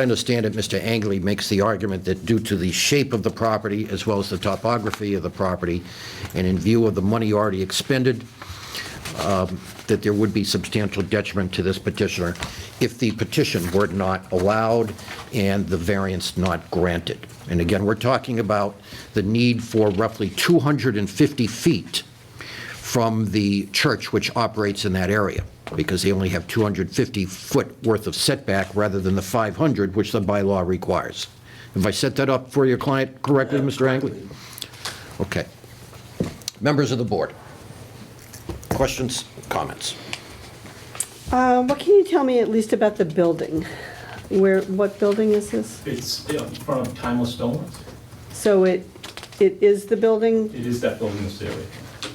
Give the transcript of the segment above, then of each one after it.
I understand it, Mr. Angley makes the argument that due to the shape of the property, as well as the topography of the property, and in view of the money already expended, um, that there would be substantial detriment to this petitioner if the petition were not allowed and the variance not granted. And again, we're talking about the need for roughly 250 feet from the church which operates in that area, because they only have 250-foot worth of setback rather than the 500, which the bylaw requires. Have I set that up for your client correctly, Mr. Angley? Okay. Members of the board, questions, comments? Uh, What can you tell me at least about the building? Where, what building is this? It's in front of Timeless Stoneworks. So it, it is the building, It is that building that's there.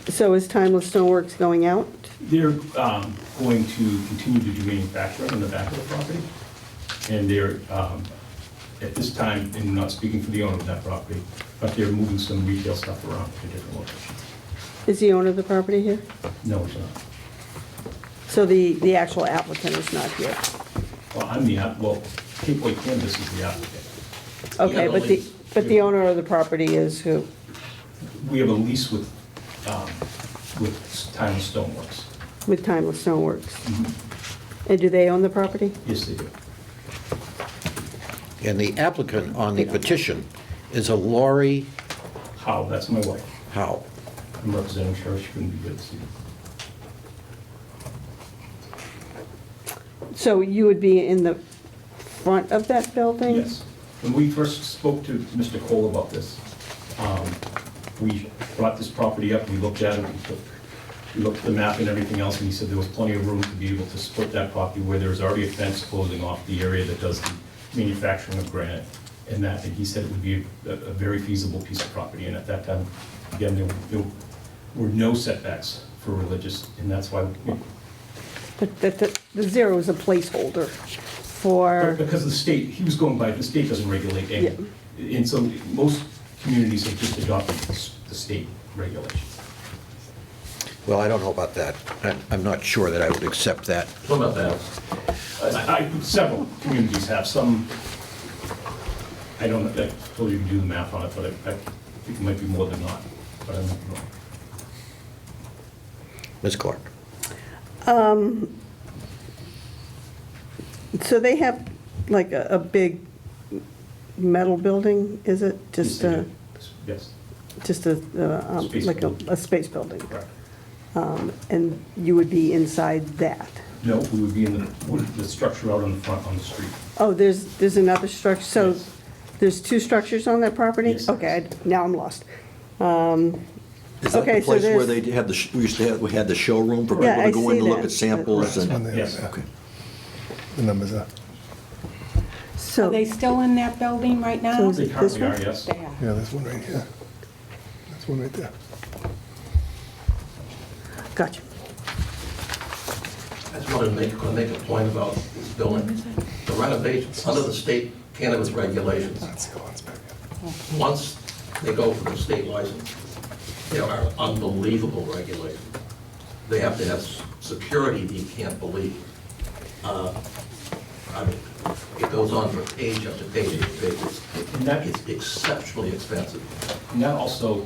so is Timeless Stoneworks going out? They're um, going to continue to do manufacturing on the back of the property. And they're, um, at this time, and not speaking for the owner of that property, but they're moving some retail stuff around to different locations. Is the owner of the property here? No, it's not. So the, the actual applicant is not here? Well, I'm the, app- well, Cape Boy Canvas is the applicant. Okay, Yeah, but the, the- but the owner of the property is who? We have a lease with, um, with Timeless Stoneworks. With Timeless Stoneworks? And do they own the property? Yes, they do. And the applicant on the petition is a Lori How, that's my wife. Howe. I'm representing her, she couldn't be here this evening. So you would be in the front of that building? Yes. When we first spoke to Mr. Cole about this, um, we brought this property up, we looked at it, we took- we looked at the map and everything else, and he said there was plenty of room to be able to split that property where there's already a fence closing off the area that does the manufacturing of granite and that, and he said it would be a a very feasible piece of property. And at that time, again, there were- there were no setbacks for religious, and that's why, we- But that, that- the zero is a placeholder for, Because the state, he was going by, the state doesn't regulate any, and so most communities have just adopted this- the state regulation. Well, I don't know about that. I- I'm not sure that I would accept that. What about that? I, I- several communities have, some, I don't, know. I told you to do the math on it, but I, I think it might be more than not, but I don't know. Ms. Clark? so they have like a, a big metal building, is it? Just Yes, they a, do. Mm-hmm. Yes, just a, uh, um, Space like a, building. a space building? correct. And you would be inside that? No, we would be in the, would the structure out on the front, on the street. Oh, there's, there's another structure, so Yes. there's two structures on that property? Yes. Okay, I- now I'm lost. Is that Okay, the so place where there's- they had the, sh- we used to have, we had the showroom for Yeah, people to I go see in and look that. at samples and? Yes. Okay. The numbers are, So, Are they still in that building right So now? is They it currently this are, one? yes. They are. yeah, there's one right here. There's one right there. gotcha. I just wanted to make, gonna make a point about this building. The renovations, under the state cannabis regulations, That's the ones back there. once they go for the state license, there are unbelievable regulations. They have to have s- security that you can't believe. Uh, I mean, it goes on for page after page after page. And that- It's exceptionally expensive. And that also,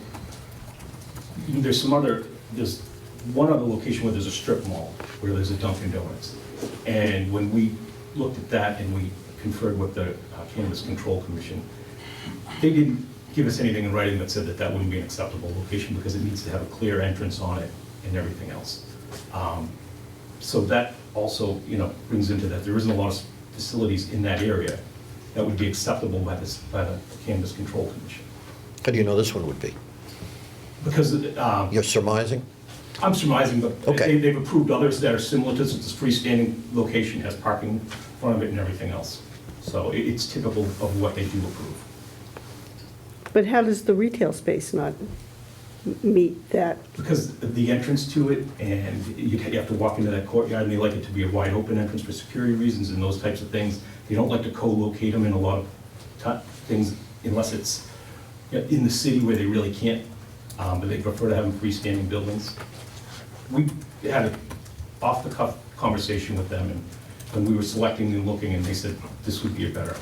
there's some other, there's one other location where there's a strip mall, where there's a Dunkin' Donuts. And when we looked at that and we conferred with the uh, Cannabis Control Commission, they didn't give us anything in writing that said that that wouldn't be an acceptable location because it needs to have a clear entrance on it and everything else. Um, So that also, you know, brings into that, there isn't a lot of facilities in that area that would be acceptable by this, by the Cannabis Control Commission. How do you know this one would be? Because um, You're surmising? I'm surmising, but Okay. they- they've approved others that are similar to this. It's a freestanding location, has parking in front of it and everything else. So it- it's typical of what they do approve. But how does the retail space not m- meet that? Because the entrance to it, and you you have to walk into that courtyard, and they like it to be a wide open entrance for security reasons and those types of things. They don't like to co-locate them in a lot of ti- things unless it's you know, in the city where they really can't, um, but they prefer to have them freestanding buildings. We had an off-the-cuff conversation with them, and when we were selecting and looking, and they said this would be a better